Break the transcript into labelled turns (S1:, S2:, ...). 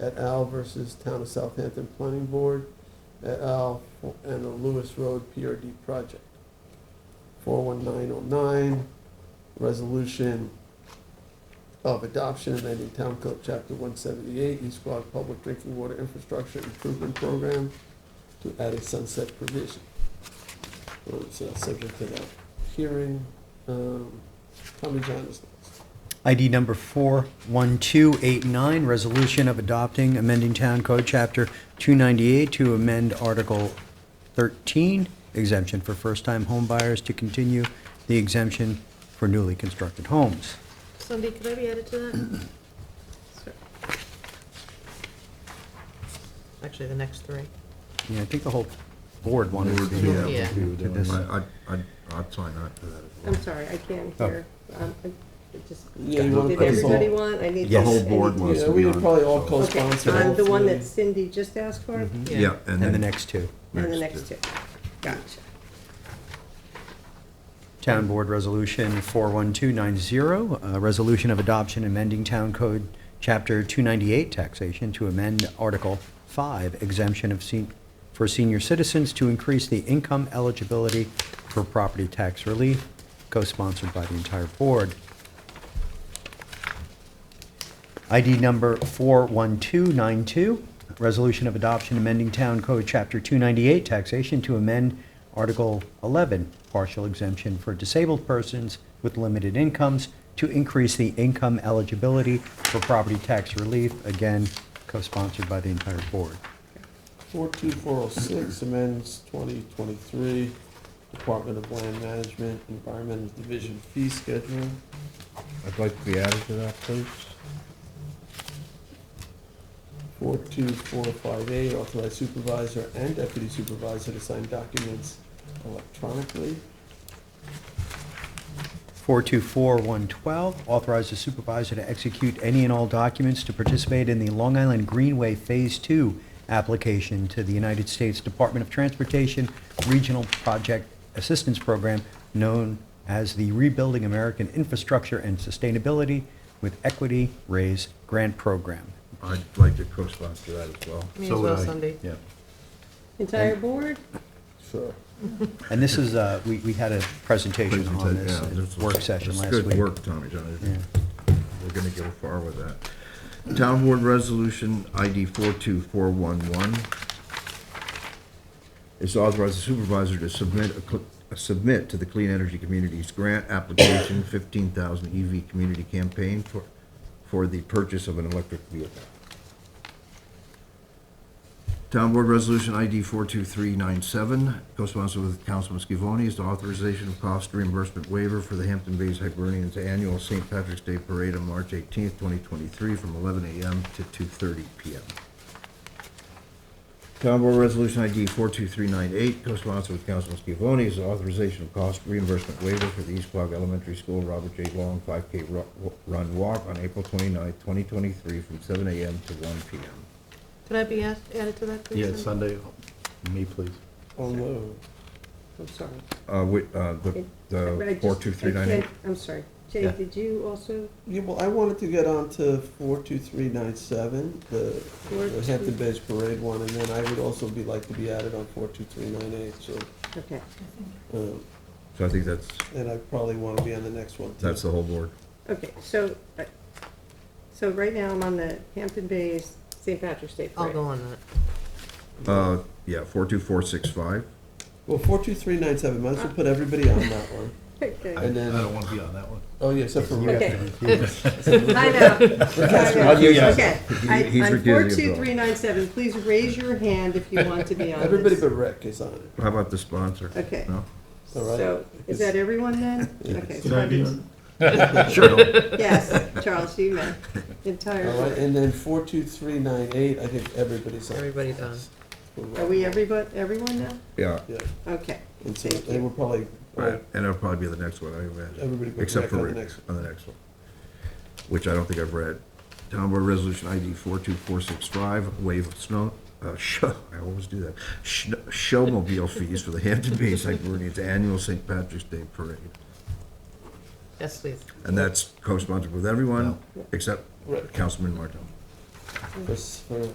S1: et al. versus Town of Southampton Planning Board et al. and the Lewis Road PRD project. 41909, resolution of adoption amending Town Code Chapter 178, East Quad Public Drinking Water Infrastructure Improvement Program to add a sunset provision. So it's uh, subject to that hearing. Um, Tommy John is next.
S2: ID number 41289, resolution of adopting amending Town Code Chapter 298 to amend Article 13, exemption for first-time home buyers to continue the exemption for newly constructed homes.
S3: Cindy, could I be added to that? Sure. Actually, the next three.
S2: Yeah, I think the whole board wanted to be
S4: Board,
S3: yeah.
S2: to this.
S4: I, I, I'd- I'd sign up for that.
S5: I'm sorry, I can't
S2: Oh.
S5: hear. Um, I- it just-
S1: Yeah, you wanna
S5: Did
S1: put us
S5: everybody
S1: all-
S5: want, I need.
S2: The whole
S5: I need-
S4: board wants
S1: Yeah,
S4: to
S1: we
S4: be
S1: would
S4: on,
S1: probably all
S4: so-
S5: Okay,
S1: co-sponsor.
S5: I'm the one
S1: hopefully.
S5: that Cindy just asked for, and
S4: Yeah, and
S2: And the
S4: then.
S2: next two,
S5: the
S4: next
S5: next
S4: two.
S5: two. Gotcha.
S2: Town Board Resolution 41290, uh, resolution of adoption amending Town Code Chapter 298 taxation to amend Article 5 exemption of sen- for senior citizens to increase the income eligibility for property tax relief, co-sponsored by the entire board. ID number 41292, resolution of adoption amending Town Code Chapter 298 taxation to amend Article 11, partial exemption for disabled persons with limited incomes to increase the income eligibility for property tax relief, again, co-sponsored by the entire board.
S1: 42406 amends 2023 Department of Land Management Environmental Division fee schedule.
S4: I'd like to be added to that, please.
S1: 42458, oh authorize supervisor and deputy supervisor to sign documents electronically.
S2: 424112, authorize the supervisor to execute any and all documents to participate in the Long Island Greenway Phase 2 application to the United States Department of Transportation Regional Project Assistance Program, known as the Rebuilding American Infrastructure and Sustainability with Equity Raise Grant Program.
S4: I'd like to co-sponsor that as well.
S3: Me
S4: So
S3: as
S4: would
S3: well,
S4: I.
S3: Cindy.
S4: Yeah.
S5: Entire board?
S1: Sure.
S2: And this is, uh, we we had a presentation on
S4: Presentation, yeah,
S2: this
S4: this
S2: at work
S4: was-
S2: session
S4: it's
S2: last
S4: Good
S2: week.
S4: work, Tommy John.
S2: Yeah.
S4: We're gonna go far with that. Town Board Resolution ID 42411 is authorized the supervisor to submit, a cl- a submit to the Clean Energy Communities Grant Application 15,000 EV Community Campaign for, for the purchase of an electric vehicle. Town Board Resolution ID 42397, co-sponsored with Councilman Scavone, is the authorization of cost reimbursement waiver for the Hampton Bays Hibernians Annual St. Patrick's Day Parade on March 18th, 2023, from 11 a.m. to 2:30 p.m. Town Board Resolution ID 42398, co-sponsored with Councilman Scavone, is the authorization of cost reimbursement waiver for the East Quogue Elementary School Robert J. Long 5K Ru- Run Walk on April 29th, 2023, from 7 a.m. to 1 p.m.
S3: Could I be add- added to that, please?
S6: Yeah,
S3: Cindy?
S6: Sunday, me, please.
S1: Unload.
S5: I'm sorry.
S4: Uh, wait, uh, the,
S5: I
S4: the
S5: just-
S4: four, two, three,
S5: I
S4: nine, eight.
S5: can't- I'm sorry. Jay,
S6: Yeah.
S5: did you also,
S1: Yeah, well, I wanted to get on to 42397, the
S5: Four
S1: the
S5: two-
S1: Hampton Bays Parade one, and then I would also be like to be added on 42398, so,
S5: okay,
S1: um,
S4: So I think that's,
S1: and I probably want to be on the next one, too.
S4: that's the whole board.
S5: okay, so, uh, so right now I'm on the Hampton Bays St. Patrick's Day
S3: I'll
S5: Parade.
S3: go on that.
S4: Uh, yeah, four, two, four, six, five.
S1: Well, 42397, might as well put everybody on that one.
S5: Okay.
S1: And
S6: I
S1: then,
S6: don't want to be on that one.
S1: oh, yeah, except for Rick.
S5: Okay. I know. I
S4: I'll do
S5: know.
S4: yes.
S5: Okay.
S4: He-
S5: I-
S4: he's
S5: On
S4: recusing
S5: four
S4: himself.
S5: two three nine seven, please raise your hand if you want to be on
S1: Everybody
S5: this.
S1: but Rick is on it,
S4: How about the sponsor?
S5: Okay.
S4: No?
S1: all right?
S5: So, is that everyone then? Okay. so I just-
S4: Sure.
S5: Yes, Charles, you may.
S1: All right,
S5: Entire,
S1: and then 42398, I think everybody's on.
S3: Everybody's on.
S5: are we everybody, everyone now?
S4: Yeah,
S1: Yeah,
S5: Okay.
S1: and so
S5: Thank
S1: they
S5: you.
S1: were probably, all
S4: right, and it'll probably be the next one, I imagine,
S1: Everybody but
S4: except
S1: Rick
S4: for
S1: on the
S4: Rick,
S1: next one.
S4: on the next one, which I don't think I've read. Town Board Resolution ID four two four six five, waive of snow, uh, show, I always do that, Shn- showmobile fees for the Hampton Bays Hibernians Annual St. Patrick's Day Parade.
S3: Yes, please.
S4: And that's co-sponsored with everyone,
S5: No.
S4: except
S1: Rick.
S4: Councilman Martell.
S1: for, s- for